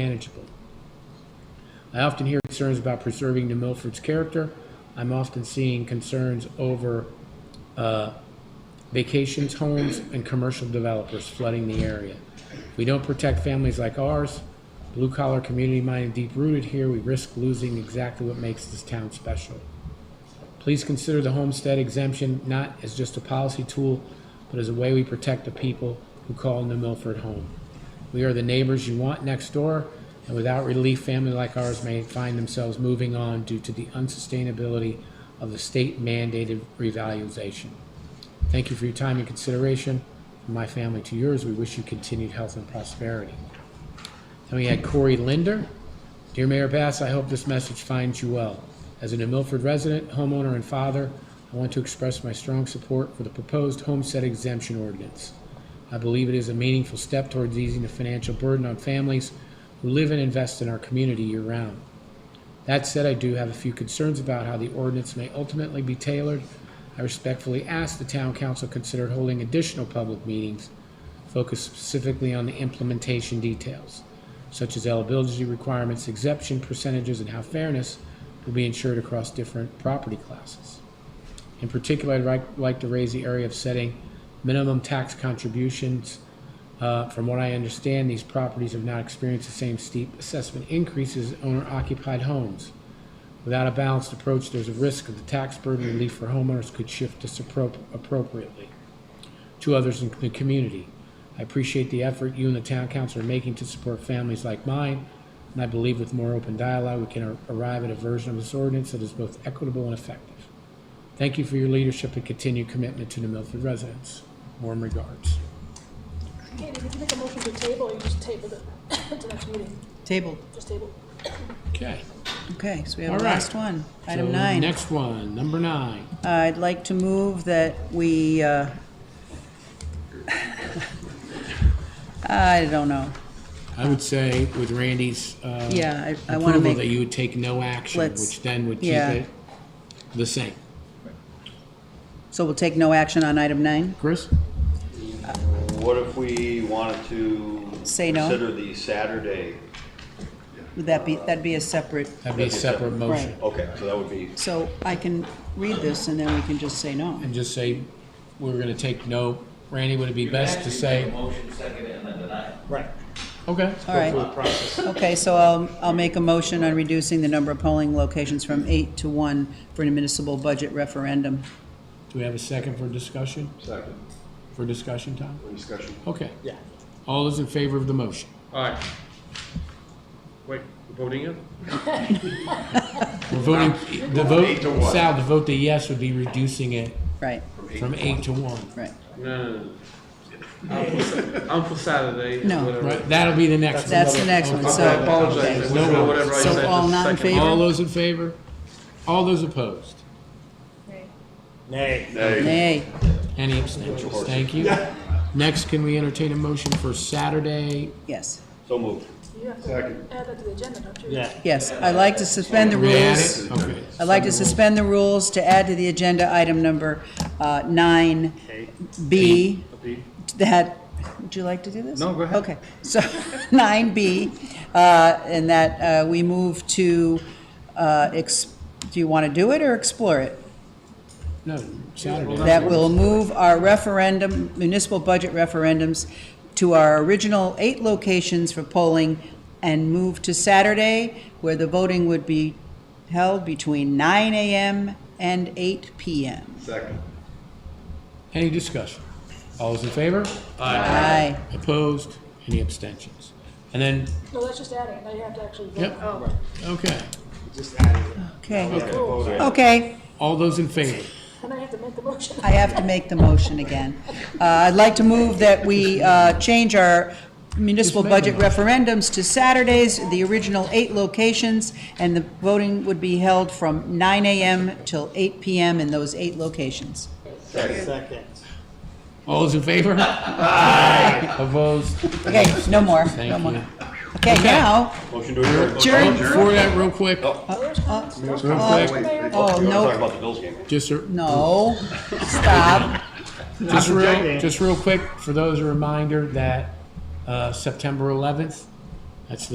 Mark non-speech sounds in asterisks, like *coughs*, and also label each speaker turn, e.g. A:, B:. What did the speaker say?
A: manageable. I often hear concerns about preserving New Milford's character. I'm often seeing concerns over uh, vacations homes and commercial developers flooding the area. If we don't protect families like ours, blue collar, community minded, deep rooted here, we risk losing exactly what makes this town special. Please consider the homestead exemption not as just a policy tool, but as a way we protect the people who call New Milford home. We are the neighbors you want next door, and without relief, families like ours may find themselves moving on due to the unsustainability of the state mandated revaluation. Thank you for your time and consideration. From my family to yours, we wish you continued health and prosperity. Then we had Corey Linder. Dear Mayor Bass, I hope this message finds you well. As a New Milford resident, homeowner, and father, I want to express my strong support for the proposed homestead exemption ordinance. I believe it is a meaningful step towards easing the financial burden on families who live and invest in our community year round. That said, I do have a few concerns about how the ordinance may ultimately be tailored. I respectfully ask the town council consider holding additional public meetings focused specifically on the implementation details, such as eligibility requirements, exemption percentages, and how fairness will be ensured across different property classes. In particular, I'd like- like to raise the area of setting minimum tax contributions. Uh, From what I understand, these properties have not experienced the same steep assessment increases as owner-occupied homes. Without a balanced approach, there's a risk that the tax burden relief for homeowners could shift disappro- appropriately to others in the community. I appreciate the effort you and the town council are making to support families like mine, and I believe with more open dialogue, we can ar- arrive at a version of this ordinance that is both equitable and effective. Thank you for your leadership and continued commitment to the Milford residents. Warm regards.
B: Katie, did you make a motion to table, or you just *coughs* tabled it to next meeting?
C: Tabled.
B: Just table.
A: Okay.
C: Okay, so we have
A: All
C: the
A: right.
C: last one. Item
A: So,
C: nine. Uh,
A: Next one, number nine.
C: I'd like to move that we, uh, *laughs* I don't know.
A: I would say with Randy's uh,
C: Yeah, I- I wanna
A: approval
C: make-
A: that you would take no action,
C: Let's-
A: which then would keep
C: yeah.
A: it the same.
C: So we'll take no action on item nine?
A: Chris?
D: What if we wanted to
C: Say no?
D: consider the Saturday?
C: Would that be, that'd be a separate,
A: That'd be a separate motion.
D: Okay, so that would be,
C: so I can read this and then we can just say no.
A: And just say, we're gonna take no, Randy, would it be best to say,
E: Motion second and then deny.
A: okay?
C: All right. Okay, so I'll, I'll make a motion on reducing the number of polling locations from eight to one for a municipal budget referendum.
A: Do we have a second for discussion? Second. For discussion, Tom? For discussion. Okay. Yeah. All those in favor of the motion?
F: Aye. Wait, we're voting it?
A: We're voting, the
D: Eight to
A: vote,
D: one.
A: Sal, the vote the yes would be reducing it
C: Right,
A: from eight to one.
C: right.
F: No, no, no. I'm for Sa- I'm for Saturday,
C: No.
F: whatever.
A: Right, that'll be the next one.
C: That's the next one,
F: I
C: so,
F: apologize
C: okay.
F: for whatever I
C: So
F: said. just
C: all
F: a
C: not in
F: second.
C: favor?
A: All those in favor? All those opposed?
C: nay.
A: Any abstentions? Thank you. Next, can we entertain a motion for Saturday?
C: Yes,
D: so moved.
B: You have to add that to the agenda, don't you? Yeah.
C: yes. I'd like to suspend the
A: Can we add it?
C: rules.
A: Okay.
C: I'd like to suspend the rules to add to the agenda item number uh, nine B. That, would you like to do this? No, go ahead. Okay, so *laughs* nine B, and that uh, we move to, uh, ex- do you want to do it or explore it?
A: No, Saturday.
C: that will move our referendum, municipal budget referendums to our original eight locations for polling and move to Saturday, where the voting would be held between 9 AM and 8 PM.
D: Second.
A: Any discussion? All those in favor?
C: Aye.
A: Opposed? Any abstentions? And then,
B: No, that's just adding, now you have to actually vote.
A: Yep. okay,
C: Okay.
B: Cool.
C: Okay,
A: all those in favor?
B: And I have to make the motion.
C: I have to make the motion again. Uh, I'd like to move that we uh, change our municipal
A: Just make
C: budget
A: a
C: referendums to Saturdays, the original eight locations, and the voting would be held from 9 AM till 8 PM in those eight locations.
A: All those in favor? Aye. Opposed?
C: Okay, no more, no
A: Thank
C: more.
A: you.
C: Okay, now,
D: Motion to adjourn.
C: Adjourn.
A: Before that, real quick,
B: Mayor's comments?
A: real quick,
C: oh,
D: We want to talk
C: no,
D: about the Bills game.
A: just, a-
C: no, stop.
A: just real, just real quick, for those, a reminder that, uh, September eleventh, that's the